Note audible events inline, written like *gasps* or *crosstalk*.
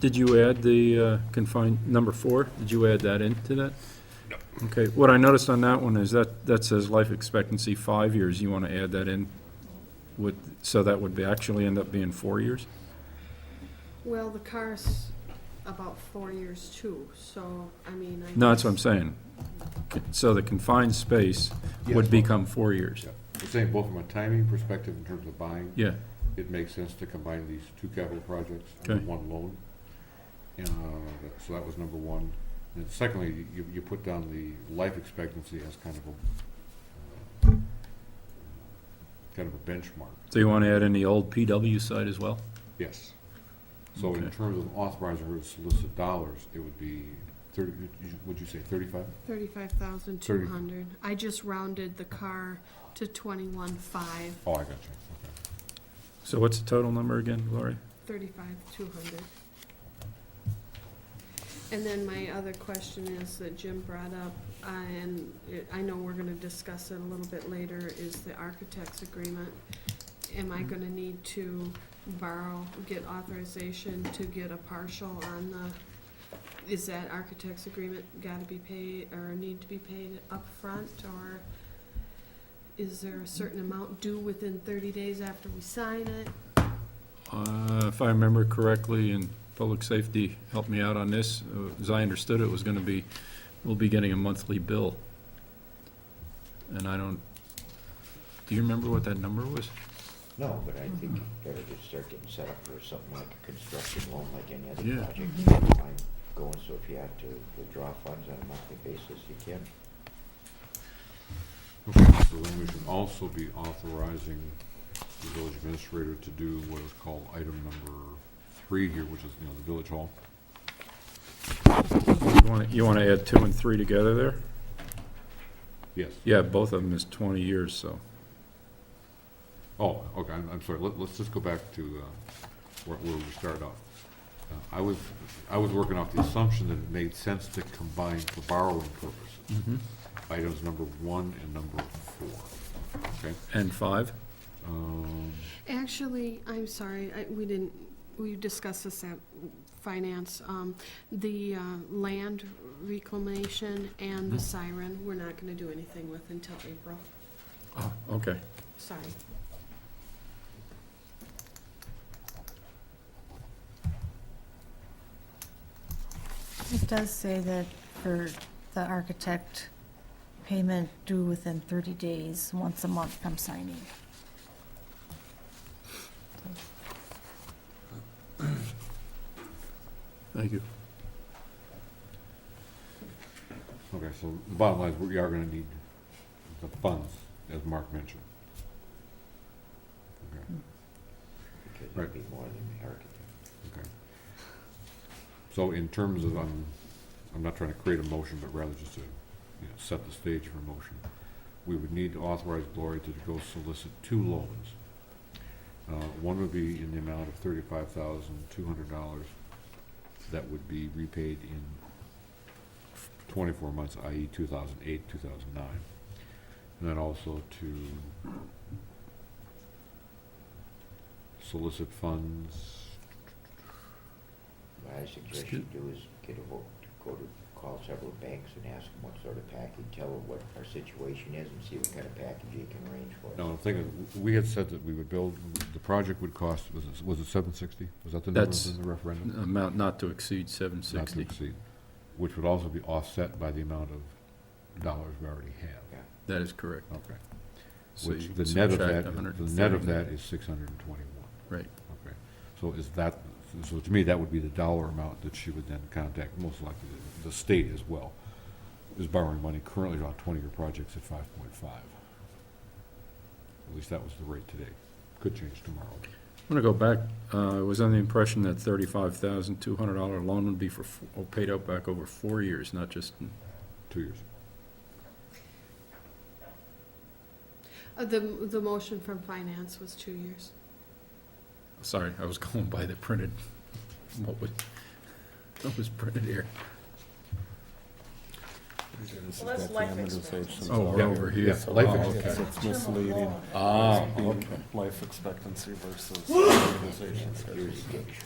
Did you add the uh, confined, number four, did you add that into that? No. Okay, what I noticed on that one is that, that says life expectancy five years, you want to add that in? Would, so that would be, actually end up being four years? Well, the car's about four years too, so, I mean, I. No, that's what I'm guess- saying. So the confined space would Yes. become four years. Yeah. I'm saying both from a timing perspective in terms of buying, Yeah, it makes sense to combine these two capital projects under Okay. one loan. And, uh, that- so that was number one. And secondly, you, you put down the life expectancy as kind of a, uh, kind of a benchmark, so you want to add in the old PW site as well? yes. So in Okay. terms of authorizing her to solicit dollars, it would be thirty, would you say thirty-five? Thirty-five thousand two hundred. I just rounded the car to twenty-one five, Oh, I got you, okay. So what's the total number again, Gloria? thirty-five two hundred. And then my other question is that Jim brought up, uh, and it- I know we're gonna discuss it a little bit later, is the architect's agreement. Am I gonna need to borrow, get authorization to get a partial on the, is that architect's agreement gotta be paid, or need to be paid upfront, or is there a certain amount due within thirty days after we sign it? Uh, If I remember correctly, and Public Safety helped me out on this, uh, as I understood it, was going to be, we'll be getting a monthly bill. And I don't, do you remember what that number was? No, but I think you better just start getting set up for something like a construction loan, like any Yeah. other project. Like Going, so if you have to withdraw funds on a monthly basis, you can. Okay, so then we should also be authorizing the village administrator to do what is called item number three here, which is, you know, the village hall. You wanna- You want to add two and three together there? Yes. Yeah, both of them is 20 years, so. Oh, okay, I'm, I'm sorry, let, let's just go back to, uh, where, where we started off. Uh, I was, I was working off the assumption that it made sense to combine for borrowing purposes, Mm-hmm. items number one and number four, okay? And five? Um, Actually, I'm sorry, I, we didn't, we discussed this at finance, um, the, uh, land reclamation and the siren, we're not gonna do anything with until April, Oh, okay. sorry. It does say that for the architect, payment due within 30 days, once a month from signing. Thank you. Okay, so the bottom line is we are gonna need the funds, as Mark mentioned. Okay, Because Right. it'd be more than the architect. okay. So in terms of, I'm, I'm not trying to create a motion, but rather just to, you know, set the stage for a motion. We would need to authorize Gloria to go solicit two loans. Uh, one would be in the amount of thirty-five thousand, two hundred dollars. That would be repaid in twenty-four months, i.e. two thousand eight, two thousand nine. And then also to solicit funds, What I suggest you do is get a hold, go to, call several banks and ask them what sort of package, tell them what our situation is and see what kind of package you can arrange for. No, the thing is, w- we had said that we would build, the project would cost, was it, was it seven sixty? Was that the number That's in the referendum? Amount not to exceed Not to 760. exceed, which would also be offset by the amount of dollars we already have. That is correct. Okay. So Oh. Which, you the net of subtract that, the 130. net of that is six hundred and twenty-one. Right. Okay. So is that, so to me, that would be the dollar amount that she would then contact, most likely the- the state as well, is borrowing money currently on twenty-year projects at five point five. At least that was the rate today. Could change tomorrow. I'm gonna go back, uh, I was under the impression that thirty-five thousand, two hundred dollar loan would be for, f- oh, paid out back over four years, not just, two years. Uh, the, the motion from finance was two years. sorry, I was *laughs* going by the printed, what was, what was printed here? Well, that's life expectancy. Oh, we're over here. Yeah, life Oh, expectancy. okay. It's misleading. Ah, *gasps* It's being Life expectancy versus amortization schedule. Here's the-